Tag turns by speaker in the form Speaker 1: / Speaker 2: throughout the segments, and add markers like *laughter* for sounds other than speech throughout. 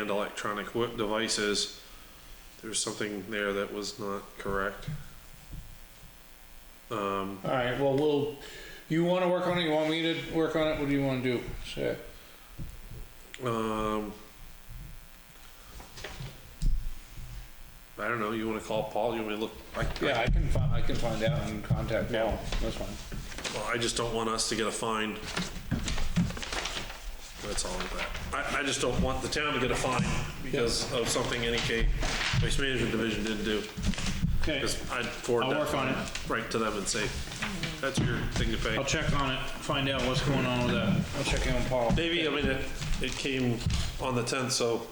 Speaker 1: and electronic wo- devices, there's something there that was not correct. Um,
Speaker 2: All right, well, we'll, you want to work on it? You want me to work on it? What do you want to do? Sure.
Speaker 1: um, I don't know, you wanna call Paul, you wanna look, I,
Speaker 2: Yeah, I can find, I can find out and contact Paul. That's fine.
Speaker 1: Well, I just don't want us to get a fine. That's all of that. I, I just don't want the town to get a fine because of something NEK Waste Management Division didn't do.
Speaker 2: Okay,
Speaker 1: Because I'd forward
Speaker 2: I'll
Speaker 1: that
Speaker 2: work on it.
Speaker 1: right to them and say, that's your thing to pay.
Speaker 2: I'll check on it, find out what's going on with that. I'll check in on Paul.
Speaker 1: Maybe, I mean, it, it came on the tenth, so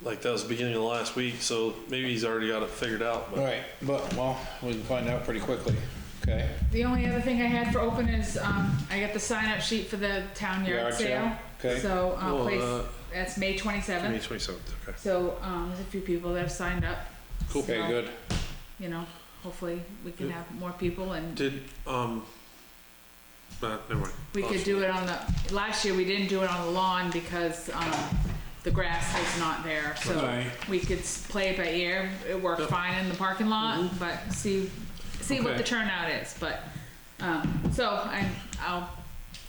Speaker 1: like that was the beginning of last week, so maybe he's already got it figured out,
Speaker 2: All
Speaker 1: but
Speaker 2: right, but, well, we can find out pretty quickly, okay?
Speaker 3: The only other thing I had for open is, um, I got the sign up sheet for the town
Speaker 2: Yard
Speaker 3: yard
Speaker 2: sale,
Speaker 3: sale.
Speaker 2: okay.
Speaker 3: So,
Speaker 1: Oh,
Speaker 3: um,
Speaker 1: uh,
Speaker 3: place, that's May
Speaker 1: May
Speaker 3: twenty-seventh,
Speaker 1: twenty-seventh, okay.
Speaker 3: so, um, there's a few people that have signed up.
Speaker 1: Cool.
Speaker 2: Okay,
Speaker 3: So,
Speaker 2: good.
Speaker 3: You know, hopefully we can
Speaker 1: Yeah.
Speaker 3: have more people and
Speaker 1: Did, um, uh, never mind.
Speaker 3: we could do it on the, last year we didn't do it on the lawn because, um, the grass was not there, so
Speaker 2: Alright.
Speaker 3: we could s- play it by ear. It worked fine in the parking lot, but see, see what
Speaker 2: Mm-hmm. Okay.
Speaker 3: the turnout is, but, um, so I'm, I'll,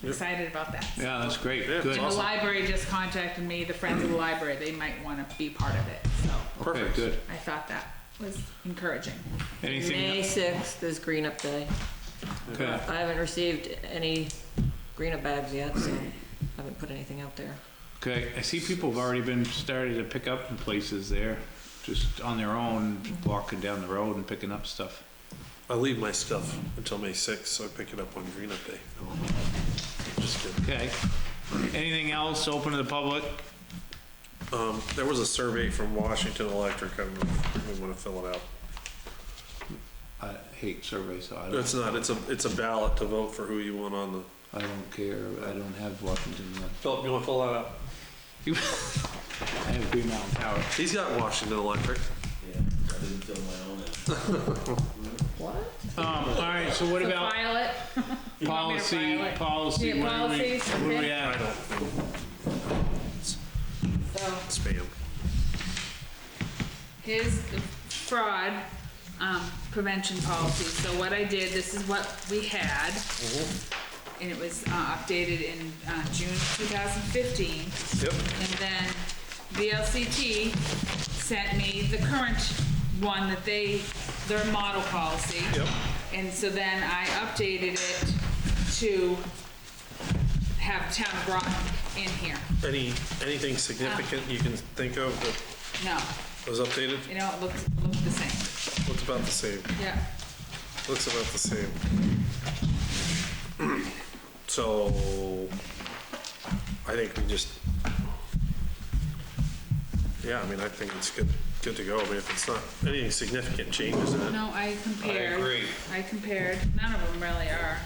Speaker 1: Yep.
Speaker 3: excited about that.
Speaker 2: Yeah, that's great,
Speaker 1: Yeah,
Speaker 2: good.
Speaker 3: And the library just contacted me, the Friends of the Library, they might wanna be part of it, so
Speaker 2: Okay,
Speaker 1: Perfect.
Speaker 2: good.
Speaker 3: I thought that was encouraging.
Speaker 2: Anything,
Speaker 4: May 6th is Green Up Day.
Speaker 2: okay,
Speaker 4: I haven't received any Green Up bags yet, so I haven't put anything out there.
Speaker 2: okay. I see people have already been starting to pick up in places there, just on their own, walking down the road and picking up stuff.
Speaker 1: I leave my stuff until May sixth, so I pick it up on Green Up Day. Just kidding.
Speaker 2: Okay. Anything else open to the public?
Speaker 1: Um, there was a survey from Washington Electric, I don't know if we wanna fill it out.
Speaker 2: I hate surveys, so I
Speaker 1: It's
Speaker 2: don't,
Speaker 1: not, it's a, it's a ballot to vote for who you want on the.
Speaker 2: I don't care. I don't have Washington Electric.
Speaker 1: Philip, you wanna fill that out?
Speaker 2: *laughs* I have Green Mountain Power.
Speaker 1: He's got Washington Electric.
Speaker 5: Yeah, I didn't fill my own in.
Speaker 4: What?
Speaker 2: Um, all right, so what
Speaker 3: So
Speaker 2: about
Speaker 3: file it. You want me to file it?
Speaker 2: policy, policy,
Speaker 3: Yeah,
Speaker 2: what do we,
Speaker 3: policies,
Speaker 2: what do we
Speaker 3: okay.
Speaker 1: I
Speaker 2: have?
Speaker 1: don't,
Speaker 3: So
Speaker 1: spam.
Speaker 3: his fraud, um, prevention policy, so what I did, this is what we had. And it was, uh, updated in, uh, June two thousand fifteen.
Speaker 1: Yep.
Speaker 3: And then VLCT sent me the current one that they, their model policy.
Speaker 1: Yep.
Speaker 3: And so then I updated it to have town of Groton in here.
Speaker 1: Any, anything significant you can think of that
Speaker 3: No,
Speaker 1: was updated?
Speaker 3: you know, it looks, looked the same.
Speaker 1: Looks about the same,
Speaker 3: Yeah,
Speaker 1: looks about the same. *clears throat* So, I think we just, yeah, I mean, I think it's good, good to go. I mean, if it's not, anything significant changes in it.
Speaker 3: no, I compared. I agree. I compared, none of them really are.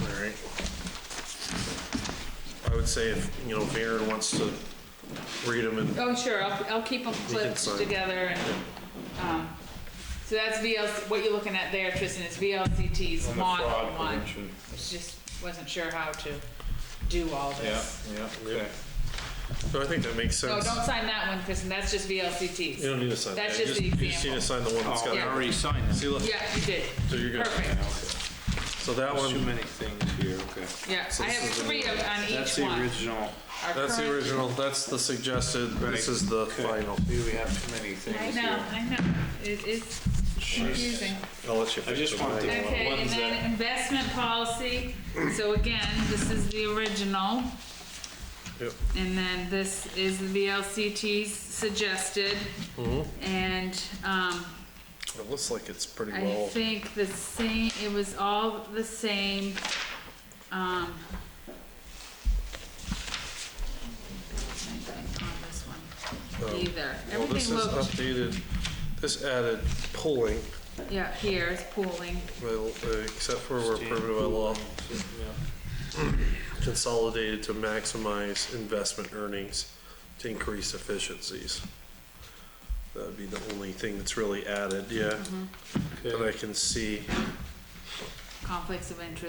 Speaker 1: All right. I would say if, you know, Varen wants to read them and,
Speaker 3: Oh, sure, I'll, I'll keep them clipped
Speaker 1: sign.
Speaker 3: together and, um, so that's VLC, what you're looking at there, Tristan, is VLCT's model one. It's Just wasn't sure how to do all this.
Speaker 2: yeah,
Speaker 1: okay. so I think that makes
Speaker 3: So
Speaker 1: sense.
Speaker 3: don't sign that one, Tristan, that's just
Speaker 1: You
Speaker 3: VLCT's.
Speaker 1: don't need to sign that.
Speaker 3: That's
Speaker 1: You
Speaker 3: just the
Speaker 1: You just need to sign the one that's got
Speaker 2: Oh, we
Speaker 1: it.
Speaker 3: Yeah.
Speaker 2: already signed
Speaker 1: See,
Speaker 2: them.
Speaker 1: look,
Speaker 3: Yeah, you did.
Speaker 1: so you're good.
Speaker 3: Perfect,
Speaker 1: So that
Speaker 2: Too
Speaker 1: one,
Speaker 2: many things here, okay.
Speaker 3: yeah, I have three of- on
Speaker 2: That's
Speaker 3: each
Speaker 2: the
Speaker 3: one.
Speaker 2: original.
Speaker 3: Our
Speaker 1: that's the
Speaker 3: current-
Speaker 1: original, that's the suggested, this
Speaker 2: Right.
Speaker 1: is the
Speaker 2: Okay.
Speaker 1: final.
Speaker 2: See, we have too many
Speaker 3: I
Speaker 2: things
Speaker 3: know,
Speaker 2: here.
Speaker 3: I know, it is confusing.
Speaker 1: I'll let you.
Speaker 2: I just
Speaker 1: fix them.
Speaker 2: want the
Speaker 3: Okay, and
Speaker 2: ones
Speaker 3: then
Speaker 2: that,
Speaker 3: investment policy, so again, this is the original.
Speaker 1: Yep.
Speaker 3: And then this is the VLCT's suggested.
Speaker 1: Mm-hmm.
Speaker 3: And, um,
Speaker 1: It looks like it's pretty
Speaker 3: I
Speaker 1: well,
Speaker 3: think the same, it was all the same, um. On this one,
Speaker 1: Um,
Speaker 3: either.
Speaker 1: well, this
Speaker 3: Everything
Speaker 1: is
Speaker 3: looked,
Speaker 1: updated, this added pulling,
Speaker 3: yeah, here is pooling.
Speaker 1: well, uh, except for where prohibited by law. Consolidated to maximize investment earnings to increase efficiencies. That'd
Speaker 3: Mm-hmm.
Speaker 1: be the only thing that's really added, yeah, that I can see.
Speaker 3: conflicts of interest